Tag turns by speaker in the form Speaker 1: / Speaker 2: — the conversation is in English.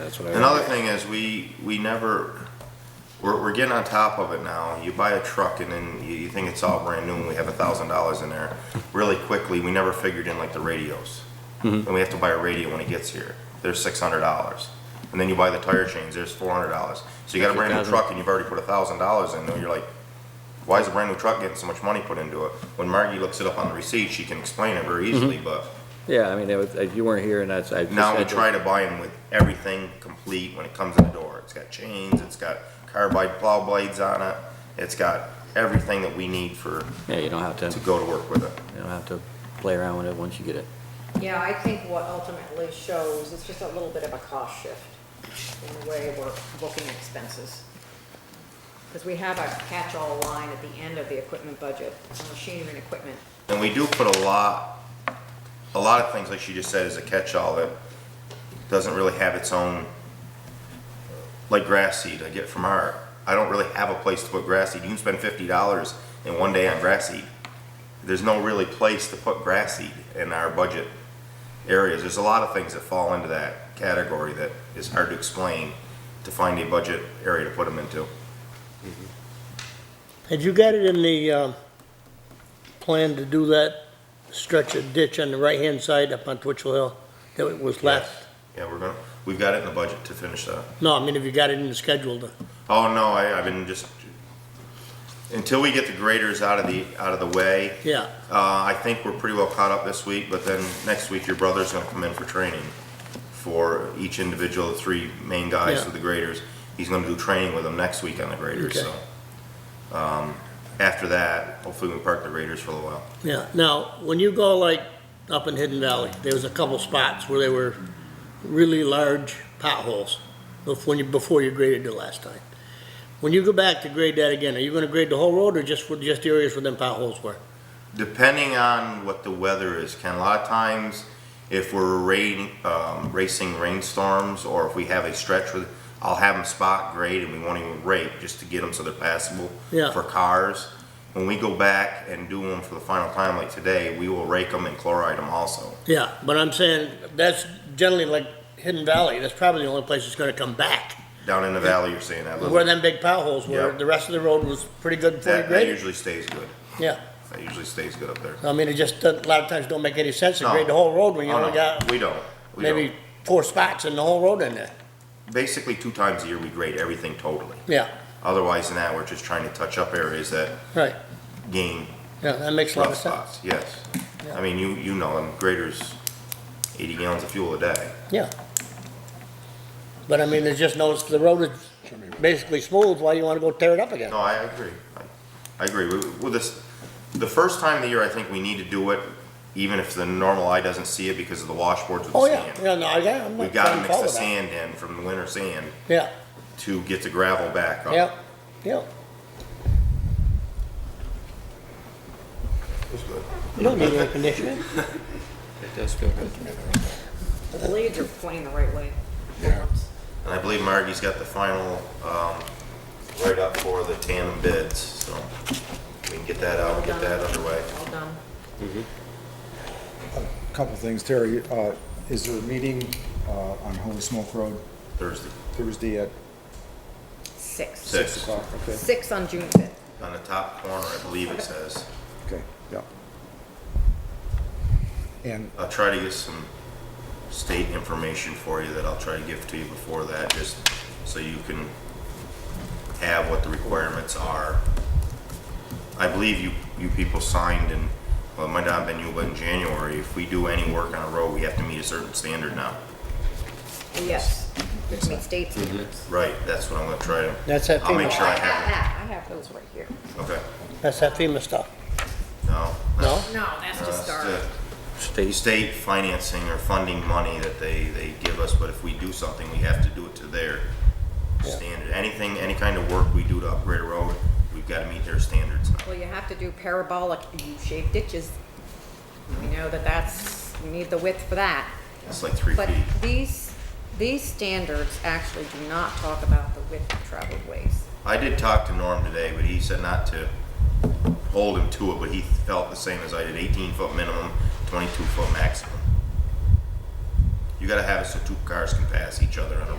Speaker 1: That's what I.
Speaker 2: Another thing is we, we never, we're, we're getting on top of it now. You buy a truck and then you, you think it's all brand new and we have a thousand dollars in there. Really quickly, we never figured in like the radios. And we have to buy a radio when it gets here. There's six hundred dollars. And then you buy the tire chains, there's four hundred dollars. So you got a brand new
Speaker 3: 50,000.
Speaker 2: truck and you've already put a thousand dollars in there. You're like, why is a brand new truck getting so much money put into it? When Margie looks it up on the receipt, she can explain it very easily, but
Speaker 3: Yeah, I mean, it was- if you weren't here and that's, I. just
Speaker 2: now we
Speaker 3: had to-
Speaker 2: try to buy them with everything complete when it comes in the door. It's got chains, it's got carbide plow blades on it, it's got everything that we need for,
Speaker 3: Yeah, you don't have to,
Speaker 2: to
Speaker 3: you
Speaker 2: go to work with it.
Speaker 3: don't have to play around with it once you get it.
Speaker 4: Yeah, I think what ultimately shows, it's just a little bit of a cost shift in the way we're booking expenses. Because we have a catch-all line at the end of the equipment budget, machinery and equipment.
Speaker 2: And we do put a lot, a lot of things, like she just said, is a catch-all that doesn't really have its own, like grass seed I get from our, I don't really have a place to put grass seed. You can spend fifty dollars in one day on grass seed. There's no really place to put grass seed in our budget areas. There's a lot of things that fall into that category that is hard to explain to find a budget area to put them into.
Speaker 5: Had you got it in the, um, plan to do that stretch of ditch on the right-hand side up on Twitchell Hill that was left?
Speaker 2: Yeah, we're gonna, we've got it in the budget to finish that.
Speaker 5: No, I mean, have you got it in the schedule to,
Speaker 2: Oh, no, I, I've been just, until we get the graders out of the, out of the way,
Speaker 5: yeah,
Speaker 2: uh, I think we're pretty well caught up this week, but then next week your brother's gonna come in for training for each individual, the three main guys
Speaker 5: Yeah.
Speaker 2: with the graders. He's gonna do training with them next week on the graders,
Speaker 5: Okay.
Speaker 2: so. Um, after that, hopefully we park the graders for a little while.
Speaker 5: yeah. Now, when you go like up in Hidden Valley, there was a couple spots where there were really large potholes before you, before you graded it last time. When you go back to grade that again, are you gonna grade the whole road or just, for- just the areas where them potholes were?
Speaker 2: Depending on what the weather is, Ken, a lot of times, if we're rain, um, racing rainstorms, or if we have a stretch with, I'll have them spot grade and we won't even rake, just to get them so they're passable
Speaker 5: Yeah.
Speaker 2: for cars. When we go back and do them for the final time, like today, we will rake them and chloride them also.
Speaker 5: Yeah, but I'm saying, that's generally like Hidden Valley, that's probably the only place it's gonna come back.
Speaker 2: Down in the valley, you're saying that
Speaker 5: Where
Speaker 2: little,
Speaker 5: them big potholes were,
Speaker 2: Yeah.
Speaker 5: the rest of the road was pretty good before you
Speaker 2: that, that
Speaker 5: graded.
Speaker 2: usually stays good.
Speaker 5: Yeah,
Speaker 2: That usually stays good up there.
Speaker 5: I mean, it just, doesn't- a lot of times don't make any sense to
Speaker 2: No.
Speaker 5: grade the whole road when you
Speaker 2: Oh,
Speaker 5: only
Speaker 2: no,
Speaker 5: got
Speaker 2: We don't, we
Speaker 5: maybe
Speaker 2: don't.
Speaker 5: four spots in the whole road in there.
Speaker 2: Basically, two times a year, we grade everything totally.
Speaker 5: Yeah,
Speaker 2: Otherwise than that, we're just trying to touch up areas that
Speaker 5: right,
Speaker 2: gain
Speaker 5: yeah, that makes a lot
Speaker 2: rough
Speaker 5: of sense.
Speaker 2: spots, yes.
Speaker 5: Yeah.
Speaker 2: I mean, you, you know, them graders, eighty gallons of fuel a day.
Speaker 5: Yeah. But I mean, it's just notice the road is basically smooth, why you wanna go tear it up again?
Speaker 2: No, I agree. I- I agree. We- With this, the first time of the year, I think we need to do it, even if the normal eye doesn't see it because of the washboards with
Speaker 5: Oh,
Speaker 2: the
Speaker 5: yeah,
Speaker 2: sand.
Speaker 5: yeah, no, I, yeah, I'm
Speaker 2: We've
Speaker 5: not
Speaker 2: gotta
Speaker 5: trying to
Speaker 2: mix
Speaker 5: follow
Speaker 2: the
Speaker 5: that.
Speaker 2: sand in from the winter sand
Speaker 5: Yeah,
Speaker 2: to get the gravel back up.
Speaker 5: yeah, yeah.
Speaker 2: It's good.
Speaker 5: You don't need air conditioning.
Speaker 1: It does feel good.
Speaker 4: The blades are pointing the right way.
Speaker 2: And I believe Margie's got the final, um, write-up for the tandem bids, so we can get that out, and get that underway.
Speaker 4: All done.
Speaker 6: Couple things, Terry, uh, is there a meeting, uh, on Holy Smoke Road
Speaker 2: Thursday,
Speaker 6: Thursday at
Speaker 4: Six.
Speaker 2: six,
Speaker 6: o'clock? Okay,
Speaker 4: Six on June fifth.
Speaker 2: on the top corner, I believe it says.
Speaker 6: okay, yeah. And,
Speaker 2: I'll try to get some state information for you that I'll try to give to you before that, just so you can have what the requirements are. I believe you, you people signed in, well, it might not have been you, but in January, if we do any work on a road, we have to meet a certain standard now.
Speaker 4: Yes, which means state standards.
Speaker 2: Right, that's what I'm gonna try to.
Speaker 5: That's that
Speaker 2: I'll make
Speaker 5: FEMA.
Speaker 2: sure I
Speaker 4: I have
Speaker 2: have
Speaker 4: that, Ah, I have those right here.
Speaker 2: it. Okay,
Speaker 5: That's that FEMA stuff,
Speaker 2: no.
Speaker 5: no?
Speaker 4: No, that's
Speaker 2: no,
Speaker 4: just
Speaker 2: that's uh,
Speaker 4: our.
Speaker 2: the
Speaker 3: State,
Speaker 2: State financing or funding money that they, they give us, but if we do something, we have to do it to their
Speaker 5: Yeah.
Speaker 2: standard. Anything, any kind of work we do to upgrade a road, we've gotta meet their standards now.
Speaker 4: Well, you have to do parabolic U-shaped ditches. We know that that's, you need the width for that.
Speaker 2: It's like three
Speaker 4: But
Speaker 2: feet.
Speaker 4: these, these standards actually do not talk about the width of traveled ways.
Speaker 2: I did talk to Norm today, but he said not to hold him to it, but he felt the same as I did, eighteen foot minimum, twenty-two foot maximum. You gotta have it so two cars can pass each other on a road.